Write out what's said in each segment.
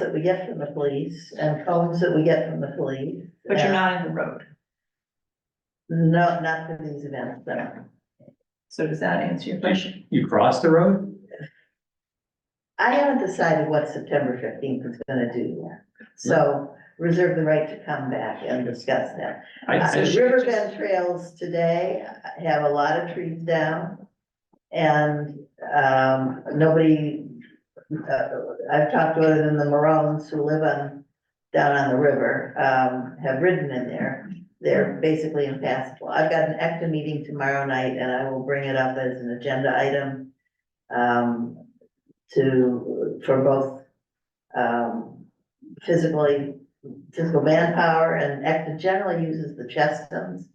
that we get from the police and phones that we get from the police. But you're not in the road, No, not for these events, no. so does that answer your question? You cross the road? I haven't decided what September fifteenth is gonna do yet. So reserve the right to come back and discuss that. I, Uh, So I- she just- Riverbend Trails today have a lot of trees down. And, um, nobody, uh, I've talked to other than the Maroons who live on, down on the river, um, have ridden in there. They're basically impassable. I've got an ECTA meeting tomorrow night and I will bring it up as an agenda item. Um, to, for both, um, physically physical manpower and ECTA generally uses the Chestums,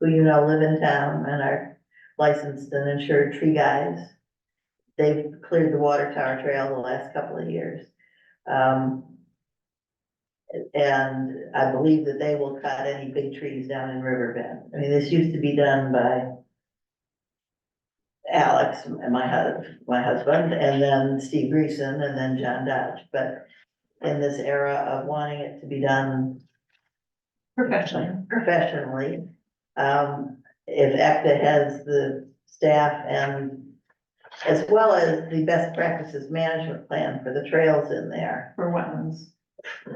who you know live in town and are licensed and insured tree guys. They've cleared the water tower trail the last couple of years. Um, and I believe that they will cut any big trees down in Riverbend. I mean, this used to be done by Alex, and my hus- my husband, and then Steve Greason, and then John Dodge, but in this era of wanting it to be done Professionally, professionally. Um, if ACTA has the staff and as well as the best practices management plan for the trails in there. for wetlands,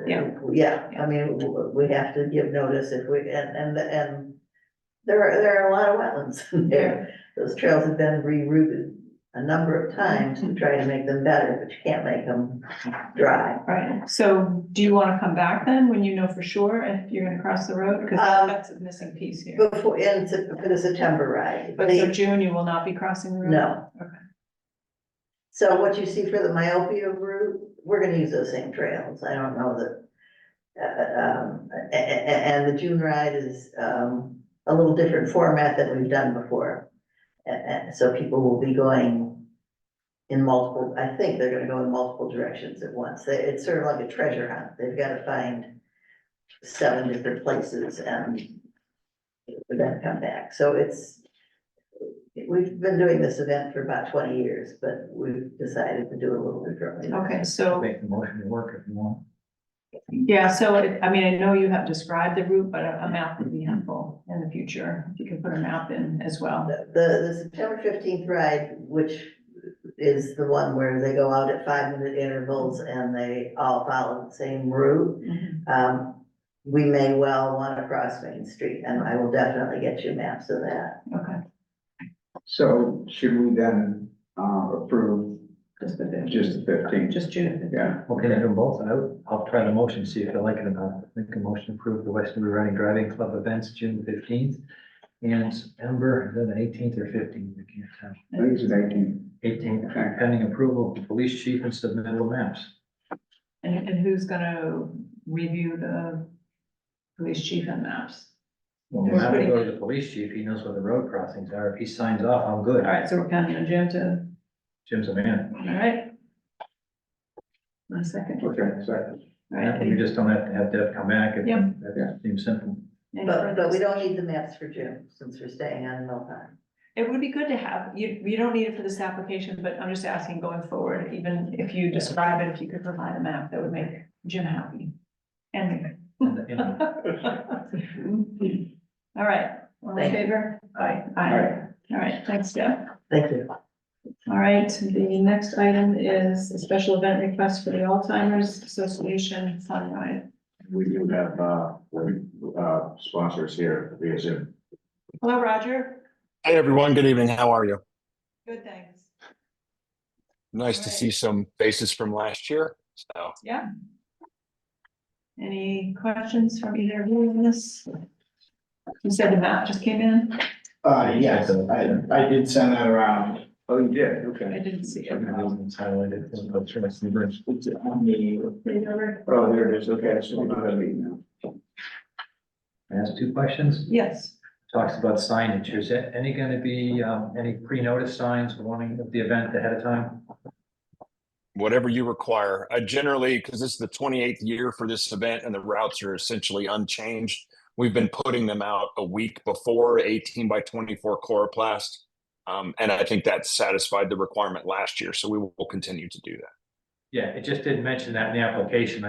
Yeah. Yeah, I mean, w- we have to give notice if we, and, and, and there are, there are a lot of wetlands in there. Those trails have been rerouted a number of times to try to make them better, but you can't make them dry. right? So do you wanna come back then, when you know for sure if you're gonna cross the road? Because that- Um, that's a missing piece here. Before, in, Sep- for the September ride. But They- so June, you will not be crossing the road? No. Okay. So what you see for the myopia route, we're gonna use those same trails, I don't know that. Uh, um, a- a- a- and the June ride is, um, a little different format than we've done before. A- a- so people will be going in multiple, I think they're gonna go in multiple directions at once, They- it's sort of like a treasure hunt, they've gotta find seven different places and then come back, so it's, We've been doing this event for about twenty years, but we've decided to do it a little differently. Okay, so, make the motion to work if you want. yeah, so, it- I mean, I know you have described the route, but a a map would be helpful in the future, if you can put a map in as well. The, the September fifteenth ride, which is the one where they go out at five minute intervals and they all follow the same route. Mhm. Um, we may well want to cross Main Street and I will definitely get you maps of that. Okay, So should we then uh approve just the fifteen, just the fifteenth? just June. Yeah, Well, can I do them both? I would, I'll try the motion, see if I like it or not. Make a motion to approve the Westonbury Running Driving Club events, June fifteenth. And September, then the eighteenth or fifteenth, I can't tell. I think it's eighteen. Eighteenth, Okay. pending approval of the police chief and submittal maps. And, and who's gonna review the police chief and maps? Well, we have to go to the police chief, he knows where the road crossings are. If he signs off, I'm good. All right, so we're counting on Jim to, Jim's a man. all right? One second. All Okay, second. right, You just don't have to have Deb come back. if- Yeah. That seems simple. any But, but we further- don't need the maps for June since we're staying on Mill Pond. It would be good to have, you, you don't need it for this application, but I'm just asking going forward, even if you describe it, if you could provide a map, that would make Jim happy. And me. And the- and the- All right, all in Thank you. favor? Aye. Aye. All right, thanks, Deb. Thank you. All right, the next item is a special event request for the Alzheimer's Association Sunrise. We do have, uh, uh, sponsors here via Zoom. Hello, Roger. Hey everyone, good evening. How are you? Good, thanks. Nice to Alright. see some faces from last year. So, Yeah. Any questions from either of you on this? You said the map just came in? Uh, yes, I, I did send that around. Oh, you did, I okay. didn't see it. It's highlighted, so I'll try to see the- It's on the- Read it over. Oh, there it is, okay, so we have it now. I ask two questions, Yes, talks about signage, is there any gonna be, um, any pre-notice signs warning of the event ahead of time? whatever you require. I generally, because this is the 28th year for this event and the routes are essentially unchanged, we've been putting them out a week before 18 by 24 chloroplast. Um, and I think that satisfied the requirement last year. So we will continue to do that. Yeah, it just didn't mention that in the application.